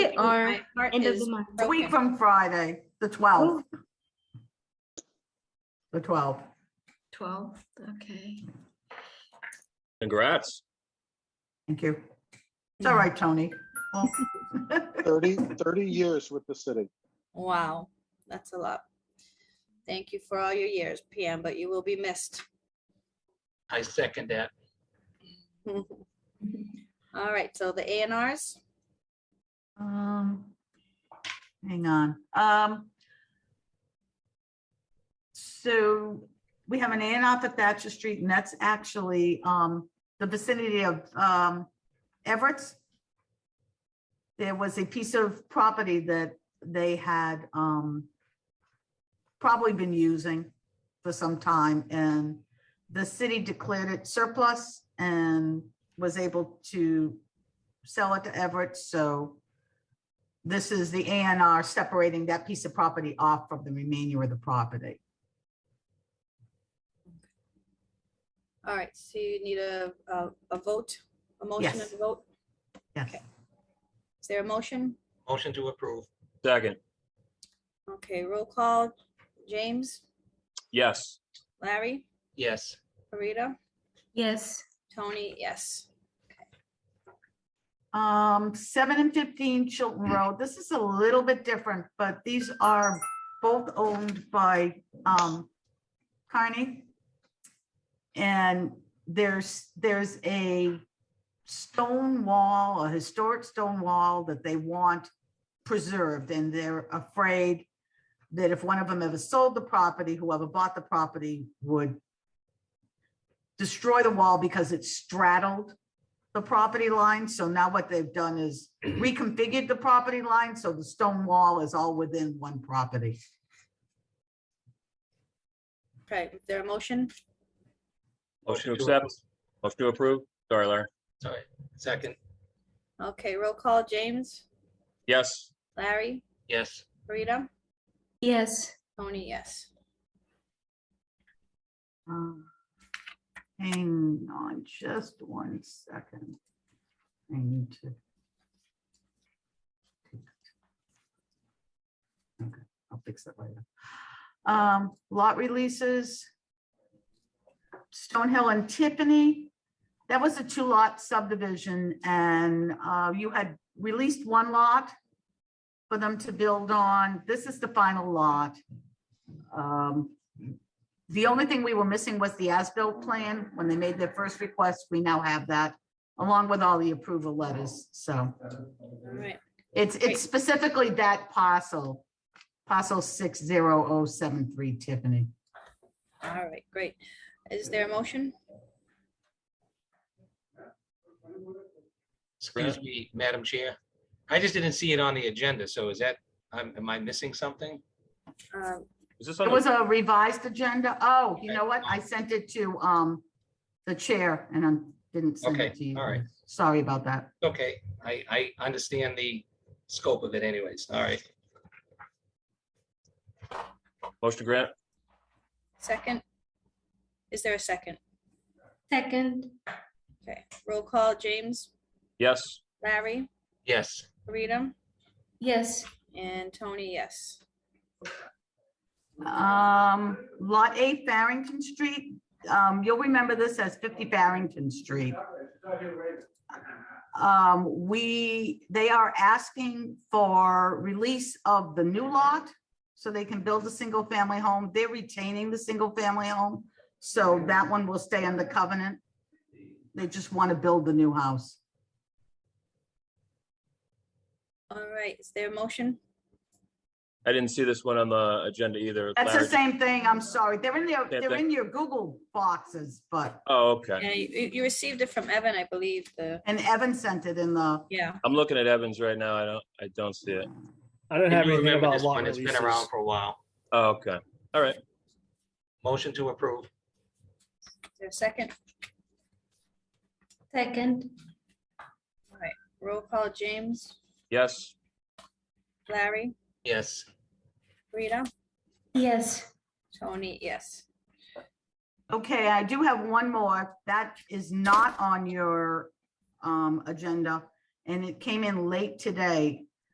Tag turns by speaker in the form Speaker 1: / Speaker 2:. Speaker 1: They are
Speaker 2: My heart
Speaker 1: end of the
Speaker 2: is
Speaker 1: month.
Speaker 3: It's a week
Speaker 2: broken.
Speaker 3: from Friday, the 12th. The 12th.
Speaker 2: 12, okay.
Speaker 4: Congrats.
Speaker 3: Thank you. It's all right, Tony.
Speaker 5: 30, 30 years with the city.
Speaker 2: Wow, that's a lot. Thank you for all your years, PM, but you will be missed.
Speaker 6: I second that.
Speaker 2: All right, so the A and Rs,
Speaker 3: Um, Hang on. Um, So we have an A and R for Thatcher Street, and that's actually um, the vicinity of um, Everett's. There was a piece of property that they had um, probably been using for some time, and the city declared it surplus and was able to sell it to Everett, so this is the A and R separating that piece of property off from the remainder of the property.
Speaker 2: all right, so you need a, a, a vote, a motion
Speaker 3: Yes.
Speaker 2: and a vote.
Speaker 3: Yes.
Speaker 2: Is there a motion?
Speaker 6: Motion to approve.
Speaker 4: Second,
Speaker 2: Okay, roll call, James,
Speaker 4: yes.
Speaker 2: Larry,
Speaker 6: Yes.
Speaker 2: Rita,
Speaker 1: Yes,
Speaker 2: Tony, yes.
Speaker 3: Um, seven and fifteen Chilton Road, this is a little bit different, but these are both owned by, um, Carney. And there's, there's a stone wall, a historic stone wall that they want preserved, and they're afraid that if one of them ever sold the property, whoever bought the property would destroy the wall because it's straddled the property line. So now what they've done is reconfigured the property line, so the stone wall is all within one property.
Speaker 2: Okay, is there a motion?
Speaker 4: Motion to accept.
Speaker 6: approve.
Speaker 4: Motion to approve. Sorry, Larry.
Speaker 6: Sorry, second.
Speaker 2: Okay, roll call, James,
Speaker 4: Yes.
Speaker 2: Larry,
Speaker 6: Yes.
Speaker 2: Rita,
Speaker 1: yes,
Speaker 2: Tony, yes.
Speaker 3: Um, Hang on just one second. I need to. Okay, I'll fix that later. Um, lot releases. Stonehill and Tiffany, that was a two lot subdivision and, uh, you had released one lot for them to build on. This is the final lot. Um, the only thing we were missing was the as-built plan. When they made their first request, we now have that along with all the approval letters. So
Speaker 2: All right,
Speaker 3: it's,
Speaker 2: Great.
Speaker 3: it's specifically that parcel, parcel six zero oh seven three Tiffany.
Speaker 2: all right, great. Is there a motion?
Speaker 6: Excuse me, Madam Chair. I just didn't see it on the agenda, so is that, I'm, am I missing something?
Speaker 2: Um,
Speaker 4: Is this
Speaker 3: It
Speaker 4: on?
Speaker 3: was
Speaker 4: the-
Speaker 3: a revised agenda. Oh, you know what? I sent it to, um, the chair and I didn't send
Speaker 6: Okay,
Speaker 3: it to you.
Speaker 6: all right.
Speaker 3: Sorry about that.
Speaker 6: Okay, I, I understand the scope of it anyways. All right.
Speaker 4: Motion to grant?
Speaker 2: Second? Is there a second?
Speaker 1: second,
Speaker 2: Okay, roll call, James,
Speaker 4: Yes.
Speaker 2: Larry,
Speaker 6: Yes.
Speaker 2: Rita,
Speaker 1: yes,
Speaker 2: and Tony, yes.
Speaker 3: Um, Lot 8 Barrington Street, um, you'll remember this as 50 Barrington Street. Um, we, they are asking for release of the new lot so they can build a single-family home. They're retaining the single-family home, so that one will stay under covenant. They just want to build the new house.
Speaker 2: All right, is there a motion?
Speaker 4: I didn't see this one on the agenda either.
Speaker 3: That's the
Speaker 4: Larry-
Speaker 3: same thing, I'm sorry. They're in their,
Speaker 4: Same
Speaker 3: they're
Speaker 4: thing.
Speaker 3: in your Google boxes, but,
Speaker 4: Oh, okay.
Speaker 2: Yeah, you, you received it from Evan, I believe, the,
Speaker 3: and Evan sent it in the.
Speaker 2: yeah,
Speaker 4: I'm looking at Evans right now. I don't, I don't see it.
Speaker 7: I don't have
Speaker 6: You
Speaker 7: anything
Speaker 6: remember
Speaker 7: about
Speaker 6: this
Speaker 7: lot
Speaker 6: one? It's
Speaker 7: releases.
Speaker 6: been around for a while.
Speaker 4: Oh, okay. All right.
Speaker 6: Motion to approve.
Speaker 2: is there a second?
Speaker 1: second,
Speaker 2: All right, roll call, James,
Speaker 4: Yes.
Speaker 2: Larry,
Speaker 6: Yes.
Speaker 2: Rita,
Speaker 1: yes,
Speaker 2: Tony, yes.
Speaker 3: Okay, I do have one more. That is not on your um agenda. And it came in late today.